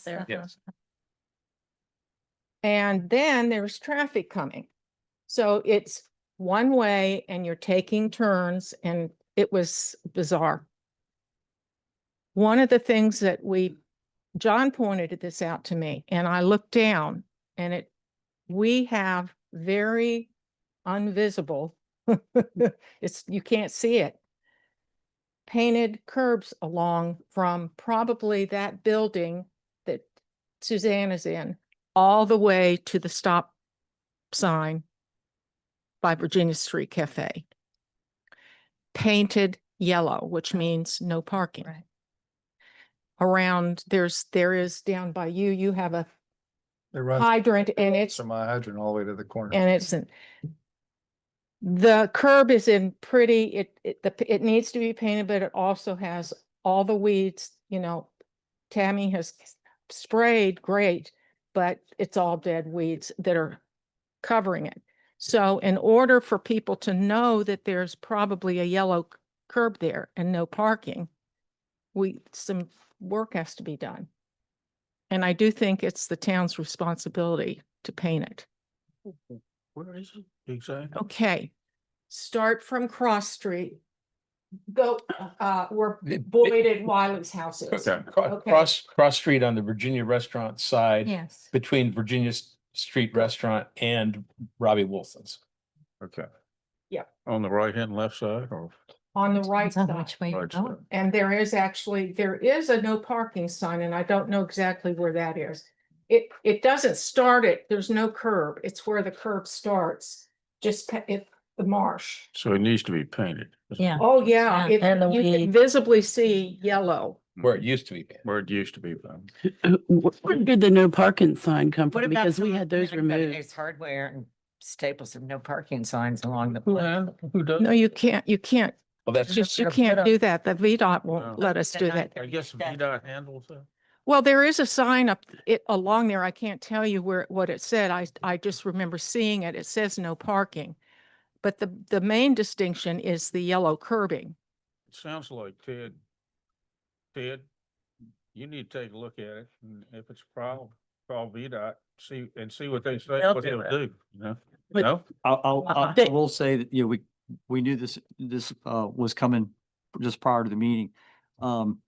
there. Yes. And then there's traffic coming. So it's one way and you're taking turns and it was bizarre. One of the things that we, John pointed this out to me and I looked down and it, we have very unvisible. It's, you can't see it. Painted curbs along from probably that building that Suzanne is in all the way to the stop sign by Virginia Street Cafe. Painted yellow, which means no parking. Right. Around, there's, there is down by you, you have a It runs hydrant and it's, from my hydrant all the way to the corner. and it's an- the curb is in pretty, it, it, the, it needs to be painted, but it also has all the weeds, you know, Tammy has sprayed great, but it's all dead weeds that are covering it. So in order for people to know that there's probably a yellow c- curb there and no parking, we, some work has to be done. And I do think it's the town's responsibility to paint it. Where is it exactly? Okay, start from Cross Street. Go, uh, where The- Boyd and Wiley's house is. Cro- Okay. Cross, cross street on the Virginia Restaurant side Yes. between Virginia S- Street Restaurant and Robbie Wilson's. Okay. Yep. On the right hand, left side or? On the right Depends on side. Which way you're right going. side? And there is actually, there is a no parking sign and I don't know exactly where that is. It, it doesn't start it, there's no curb. It's where the curb starts, just pa- if the marsh. So it needs to be painted. Yeah. Oh, yeah, Yeah, it- and the you can weeds. visibly see yellow. Where it used to be. Where it used to be. painted. Wh- Uh, Where did the no parking sign come What from? about Because we someone had those coming out of removed. Ace Hardware and Staples have no parking signs along the. Who does? No, you can't, you can't, Well, that's, just, you They're put can't up- do that. The VDOT No. won't let us They're do not that. gonna do that. VDOT handles that? Well, there is a sign up it along there. I can't tell you where, what it said. I, I just remember seeing it. It says no parking. But the, the main distinction is the yellow curbing. It sounds like Ted, Ted, you need to take a look at it and if it's a problem, call VDOT, see, and see what they say, They'll what do they'll it. do, you know? But- No? I'll, I'll, Uh-uh. I'll- I will say that, you know, we, we knew this, this, uh, was coming just prior to the meeting. Um,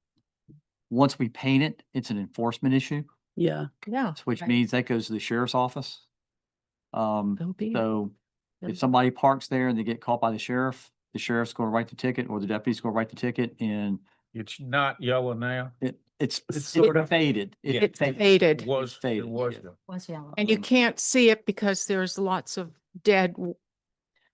once we paint it, it's an enforcement issue, Yeah. Yeah. which Right. means that goes to the sheriff's office. Um, They'll be, so They'll- if somebody parks there and they get caught by the sheriff, the sheriff's going to write the ticket or the deputy's going to write the ticket and It's not yellow now. it, it's, It's it's sort of- faded. It Yeah. it's faded. It faded was, it faded, was. yeah. yellow. Was yellow. and you Um, can't see it because there's lots of dead w-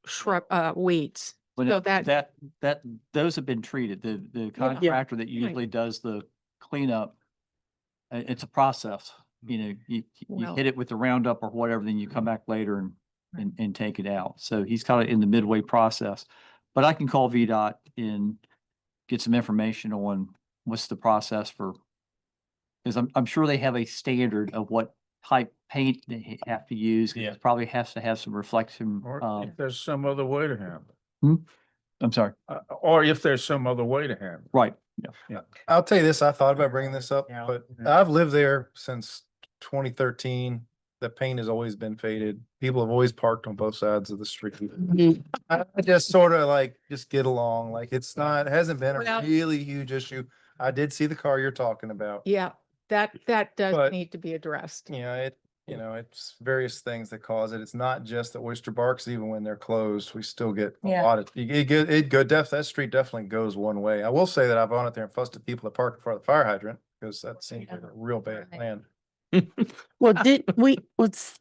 shrub, uh, weeds. But So it- that- That, that, those have been treated. The, the contractor that usually does the cleanup, uh, it's a process, you know, you, you Well- hit it with the roundup or whatever, then you come back later and, and, and take it out. So he's kind of in the midway process. But I can call VDOT and get some information on what's the process for, because I'm, I'm sure they have a standard of what type paint they have to use. 'cause Yeah. it Probably has to have some reflection, Or um, if there's some other way to handle I'm sorry, it, Uh, or if there's some other way to handle it. right, yeah. I'll tell you this, I thought about bringing this up, Yeah. but Yeah. I've lived there since twenty thirteen. The paint has always been faded. People have always parked on both sides of the street. Mm-hmm. I I just sort of like, just get along, like it's not, it hasn't been a Well- really huge issue. I did see the car you're talking about. Yeah, that, that does But- need to be addressed. You know, it, you know, it's various things that cause it. It's not just the oyster barks, even when they're closed, we still get a Yeah. lot of, it, it, go- it go, def, that street definitely goes one way. I will say that I've gone out there and fussed at people that parked in front of the fire hydrant, because that seems like a real bad Right. plan. Well, did we, let's,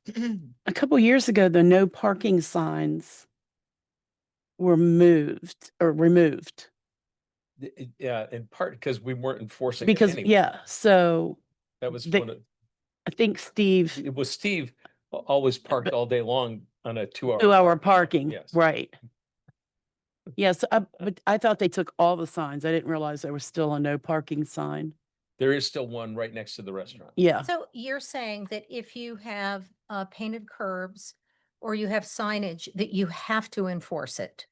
a couple years ago, the no parking signs were moved or removed yeah, in part because we weren't enforcing. it because, anyway. yeah, so That was they- one of, I think Steve, it was Steve al- always parked all day long on a two hour. two hour parking, Yes. right? Yes, I, but I thought they took all the signs. I didn't realize there was still a no parking sign. There is still one right next to the restaurant. Yeah. So you're saying that if you have uh, painted curbs or you have signage, that you have to enforce it?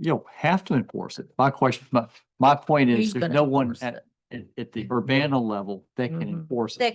you know, have to enforce it. My question, my, my point Who's is, there's gonna no one enforce at, at, at the Urbana level that can Mhm. enforce it. That